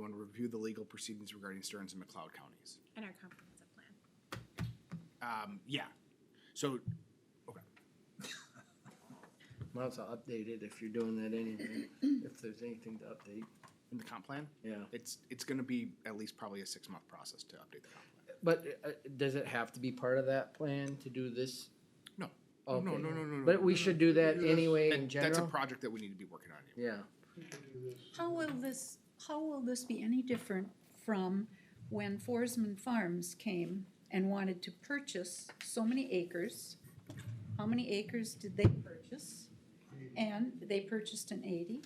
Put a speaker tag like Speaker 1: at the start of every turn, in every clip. Speaker 1: review the legal proceedings regarding Stearns and McLeod counties.
Speaker 2: And our comprehensive plan.
Speaker 1: Um, yeah, so, okay.
Speaker 3: Might as well update it if you're doing that anyway, if there's anything to update,
Speaker 1: In the comp plan,
Speaker 3: yeah.
Speaker 1: it's, it's gonna be at least probably a six-month process to update the comp plan.
Speaker 3: But uh, uh, does it have to be part of that plan to do this?
Speaker 1: No. No,
Speaker 3: Oh, Okay.
Speaker 1: no, no, no, no,
Speaker 3: But
Speaker 1: no,
Speaker 3: we
Speaker 1: no,
Speaker 3: should do that
Speaker 4: Yes.
Speaker 3: anyway in
Speaker 1: That- That's a
Speaker 3: general?
Speaker 1: project that we need to be working on anyway.
Speaker 3: Yeah,
Speaker 4: You can do this.
Speaker 5: How will this, how will this be any different from when Forsman Farms came and wanted to purchase so many acres? How many acres did they purchase? And they purchased an eighty?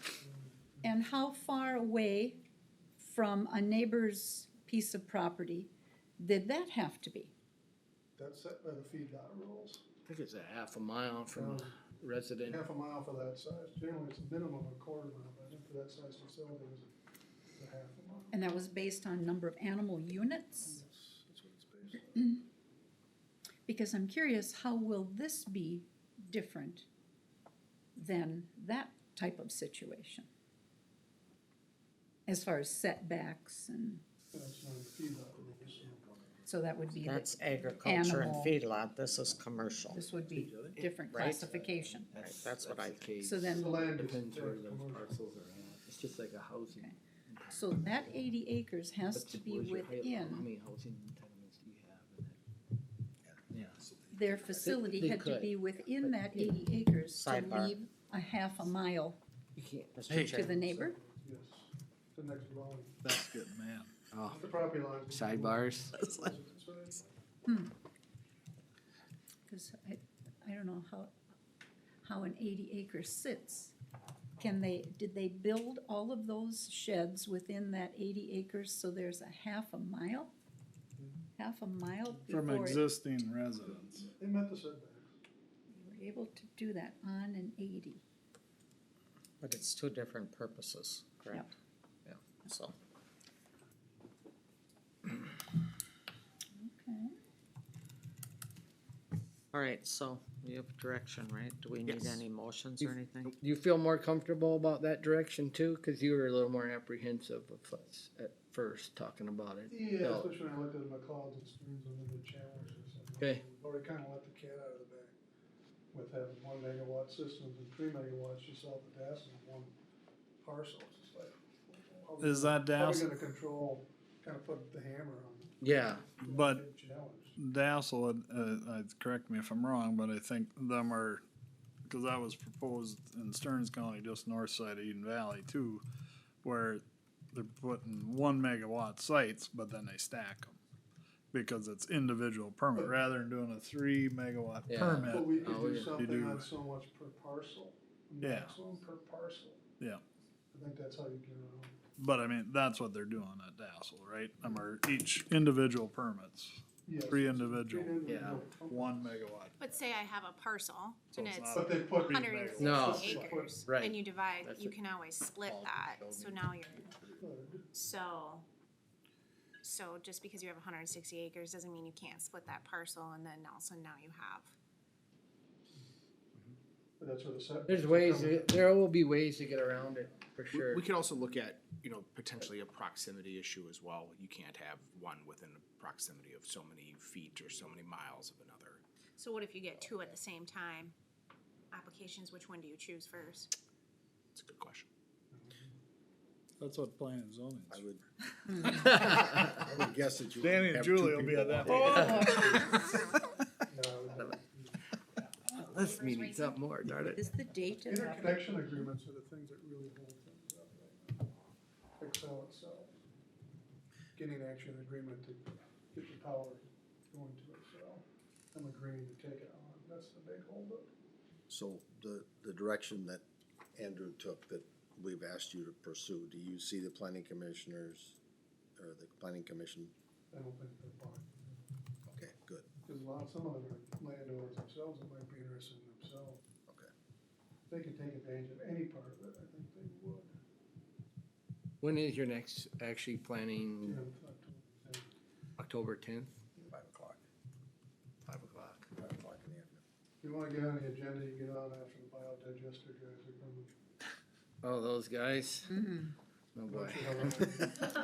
Speaker 5: And how far away from a neighbor's piece of property did that have to be?
Speaker 4: That's set by the feedlot rules.
Speaker 3: I think it's a half a mile from
Speaker 4: Um,
Speaker 3: resident.
Speaker 4: Half a mile for that size. Generally, it's a minimum of a quarter mile, but I think for that size facility, it was a- it's a half a mile.
Speaker 5: And that was based on number of animal units?
Speaker 4: That's, that's what it's based on.
Speaker 5: Because I'm curious, how will this be different than that type of situation? As far as setbacks and,
Speaker 4: That's not the feedlot rules.
Speaker 5: so that would be, the-
Speaker 6: That's agriculture and
Speaker 5: Animal.
Speaker 6: feedlot, this is commercial.
Speaker 5: this would be different
Speaker 6: Right.
Speaker 5: classification.
Speaker 6: Right, that's what I,
Speaker 3: the case.
Speaker 5: So then-
Speaker 4: The land is.
Speaker 3: Depends where those
Speaker 4: commercial.
Speaker 3: parcels are at, it's just like a housing.
Speaker 5: Okay. So that eighty acres has
Speaker 3: What's-
Speaker 5: to be
Speaker 3: where's your height- How
Speaker 5: within,
Speaker 3: many housing entitlements do you have in that? Yeah.
Speaker 5: their facility
Speaker 3: they
Speaker 5: had to
Speaker 3: could.
Speaker 5: be within that eighty acres to
Speaker 6: Sidebar.
Speaker 5: leave a half a mile
Speaker 3: You can't,
Speaker 6: Mr.
Speaker 5: to
Speaker 6: Chair.
Speaker 5: the neighbor.
Speaker 4: Yes, the next dwelling.
Speaker 7: That's good, man.
Speaker 3: oh,
Speaker 4: The property lines.
Speaker 3: sidebars.
Speaker 6: It's like-
Speaker 5: Because I, I don't know how, how an eighty acre sits. Can they, did they build all of those sheds within that eighty acres so there's a half a mile? Half a mile
Speaker 7: From
Speaker 5: before it-
Speaker 7: existing residents.
Speaker 4: They met the setback.
Speaker 5: they were able to do that on an eighty?
Speaker 6: but it's two different purposes, correct? Yeah, so.
Speaker 5: Okay.
Speaker 6: All right, so you have direction, right? Do we need
Speaker 1: Yes.
Speaker 6: any motions or anything?
Speaker 3: You feel more comfortable about that direction too? Cause you were a little more apprehensive of us at first talking about it.
Speaker 4: Yeah,
Speaker 3: So-
Speaker 4: especially when I looked at my clouds and streams under the channels or something.
Speaker 3: Okay.
Speaker 4: Already kinda let the cat out of the bag with having one megawatt systems and three megawatts, you saw the DAS in one parcel, it's just like. how we-
Speaker 7: Is that
Speaker 4: How we
Speaker 7: DAS,
Speaker 4: gonna control, kinda put the hammer on. it.
Speaker 3: Yeah,
Speaker 7: But-
Speaker 4: Big Challenge.
Speaker 7: Dassel, uh, uh, correct me if I'm wrong, but I think them are, cause that was proposed in Stearns County, just north side of Eden Valley too, where they're putting one megawatt sites, but then they stack them. Because it's individual permit, rather than doing a three megawatt
Speaker 3: Yeah.
Speaker 4: But
Speaker 7: permit,
Speaker 4: we could
Speaker 3: Oh, yeah.
Speaker 4: do
Speaker 3: You
Speaker 4: something
Speaker 7: do.
Speaker 4: on so much per parcel,
Speaker 7: Yeah.
Speaker 4: maximum per parcel.
Speaker 7: Yeah.
Speaker 4: I think that's how you get around.
Speaker 7: but I mean, that's what they're doing at Dassel, right? Them are each individual permits,
Speaker 4: Yes.
Speaker 7: three individual,
Speaker 4: individual
Speaker 7: one
Speaker 4: companies.
Speaker 7: megawatt.
Speaker 2: But say I have a parcel
Speaker 7: So
Speaker 2: and
Speaker 7: it's
Speaker 2: it's
Speaker 7: not
Speaker 4: But they put.
Speaker 7: Three
Speaker 2: hundred and
Speaker 7: megawatts.
Speaker 3: No.
Speaker 2: sixty acres.
Speaker 3: Right.
Speaker 2: And you divide,
Speaker 3: That's
Speaker 2: you
Speaker 3: it.
Speaker 2: can always split that, so now you're, so. So just because you have hundred and sixty acres doesn't mean you can't split that parcel and then also now you have.
Speaker 4: But that's where the setbacks.
Speaker 3: there's
Speaker 4: are
Speaker 3: ways,
Speaker 4: coming.
Speaker 3: there will be ways to get around it, for
Speaker 1: We-
Speaker 3: sure.
Speaker 1: We could also look at, you know, potentially a proximity issue as well. You can't have one within the proximity of so many feet or so many miles of another.
Speaker 2: So what if you get two at the same time? Applications, which one do you choose first?
Speaker 1: It's a good question.
Speaker 7: That's what planning and zoning
Speaker 8: I
Speaker 7: is.
Speaker 8: would, I would guess that you. would
Speaker 7: Danny and
Speaker 8: have two
Speaker 7: Julie will be
Speaker 8: people
Speaker 7: at that
Speaker 8: on it.
Speaker 4: No,
Speaker 3: This meeting's up more, darn it.
Speaker 5: Is the date of that?
Speaker 4: Interconnection agreements are the things that really hold things up right now. Excel itself. Getting actually an agreement to get the power going to Excel. I'm agreeing to take it on. That's the big holdup.
Speaker 8: So the, the direction that Andrew took that we've asked you to pursue, do you see the planning commissioners or the planning commission?
Speaker 4: I don't think they're buying.
Speaker 8: Okay, good.
Speaker 4: Because a lot, some of them are landowners themselves that might be interested in themselves.
Speaker 8: Okay.
Speaker 4: If they could take advantage of any part of it, I think they would.
Speaker 3: When is your next actually planning?
Speaker 4: Jim, talk to them.
Speaker 3: October tenth?
Speaker 8: Five o'clock,
Speaker 3: Five o'clock.
Speaker 8: five o'clock in the afternoon.
Speaker 4: If you want to get on the agenda, you get on after the biodigester guys are coming.
Speaker 3: Oh, those guys? Oh,
Speaker 4: Don't
Speaker 3: boy.
Speaker 4: you have a-